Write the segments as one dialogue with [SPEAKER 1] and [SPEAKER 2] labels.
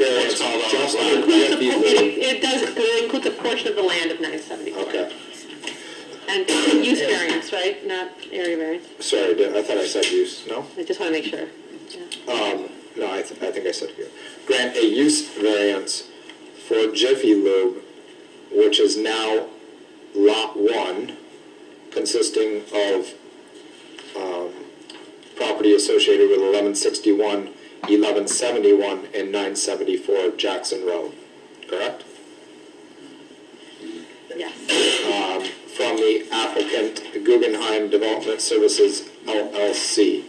[SPEAKER 1] It,
[SPEAKER 2] feasibility.
[SPEAKER 1] it does, it includes a portion of the land of nine seventy-four.
[SPEAKER 2] Okay,
[SPEAKER 1] And use variance, right, not area variance,
[SPEAKER 2] sorry, did- I thought I said use, no?
[SPEAKER 1] I just wanna make sure. Yeah.
[SPEAKER 2] Um, no, I, th- I think I said here. Grant a use variance for Jiffy Lube, which is now lot one, consisting of, um, property associated with 1161, 1171, and nine seventy-four Jackson Road, correct?
[SPEAKER 1] Yes,
[SPEAKER 2] Um, from the applicant Guggenheim Development Services LLC.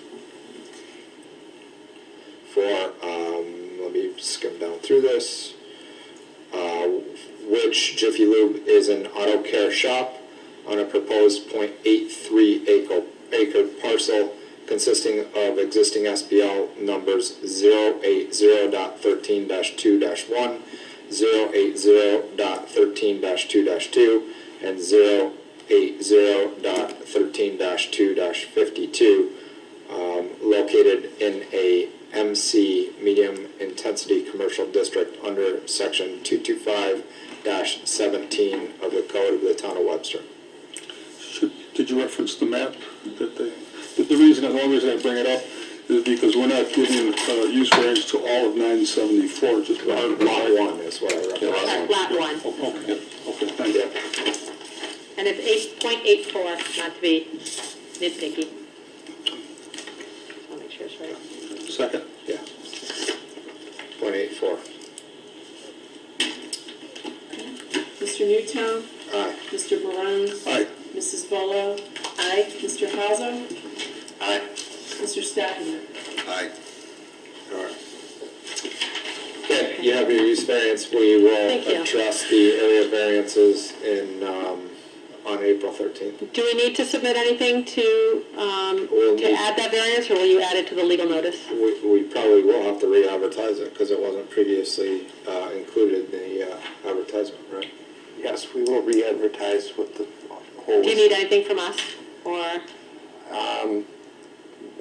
[SPEAKER 2] For, um, let me skim down through this. Uh, which Jiffy Lube is an auto care shop on a proposed 0.83 acre, acre parcel consisting of existing SBL numbers 080.13-2-1, 080.13-2-3, two and 080.13-2-52 um, located in a MC medium intensity commercial district under section 225-17 of the code of the town of Webster.
[SPEAKER 3] Should, did you reference the map that they, but the reason, the only reason I bring it up is because we're not giving, uh, use variance to all of nine seventy-four, just
[SPEAKER 2] Lot
[SPEAKER 3] part of lot one.
[SPEAKER 2] one is what I referenced.
[SPEAKER 1] Lot- lot one,
[SPEAKER 3] Oh, Okay, okay, thank you.
[SPEAKER 2] Yeah.
[SPEAKER 1] and it's eight point eight four, not to be nitpicky. I'll make sure it's right.
[SPEAKER 3] Second,
[SPEAKER 2] Yeah. Point eight four.
[SPEAKER 4] Mr. Newtown,
[SPEAKER 2] Aye.
[SPEAKER 4] Mr. Barone,
[SPEAKER 3] aye,
[SPEAKER 4] Mrs. Volo,
[SPEAKER 1] Aye,
[SPEAKER 4] Mr. Hauser,
[SPEAKER 2] Aye.
[SPEAKER 4] Mr. Stafford.
[SPEAKER 2] Alright. Okay, you have your use variance, we will
[SPEAKER 1] Thank you.
[SPEAKER 2] address the area variances in, um, on April thirteenth.
[SPEAKER 1] do we need to submit anything to, um,
[SPEAKER 2] We'll
[SPEAKER 1] to
[SPEAKER 2] need-
[SPEAKER 1] add that variance, or will you add it to the legal notice?
[SPEAKER 2] We, we probably will have to re-advertise it, because it wasn't previously, uh, included in the, uh, advertisement, right?
[SPEAKER 5] Yes, we will re-advertise with the whole,
[SPEAKER 1] Do you need anything from us, or?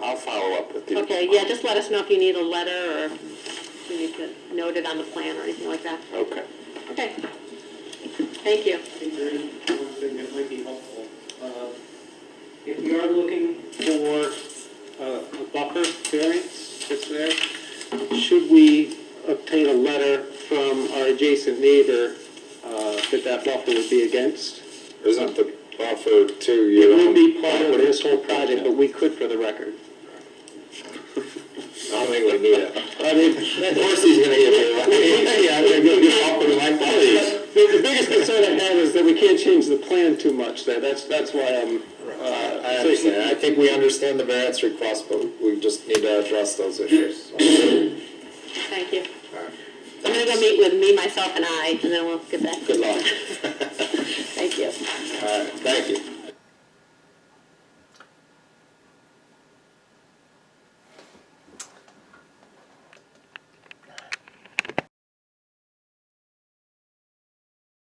[SPEAKER 5] I'll follow up with you.
[SPEAKER 1] Okay, yeah, just let us know if you need a letter or if you need to note it on the plan or anything like that.
[SPEAKER 5] Okay.
[SPEAKER 1] Okay. Thank you.
[SPEAKER 6] I think there is one thing that might be helpful. Uh, If we are looking for uh, a buffer variance that's there, should we obtain a letter from our adjacent neighbor uh, that that buffer would be against?
[SPEAKER 2] Isn't the buffer to
[SPEAKER 6] It
[SPEAKER 2] your
[SPEAKER 6] would
[SPEAKER 2] own?
[SPEAKER 6] be part of this whole project, but we could for the record.
[SPEAKER 2] I don't think we need it.
[SPEAKER 6] I mean,
[SPEAKER 2] Of course he's gonna give it away.
[SPEAKER 6] Yeah, I'm gonna go get off with my
[SPEAKER 2] Please.
[SPEAKER 6] The the biggest concern I have is that we can't change the plan too much there. That's, that's why I'm,
[SPEAKER 2] Uh, I understand, I think we understand the variance request, but we just need to address those issues.
[SPEAKER 1] Thank you. I'm gonna go meet with me, myself, and I, and then we'll get back.
[SPEAKER 2] Good luck.
[SPEAKER 1] Thank you.
[SPEAKER 2] All right, thank you.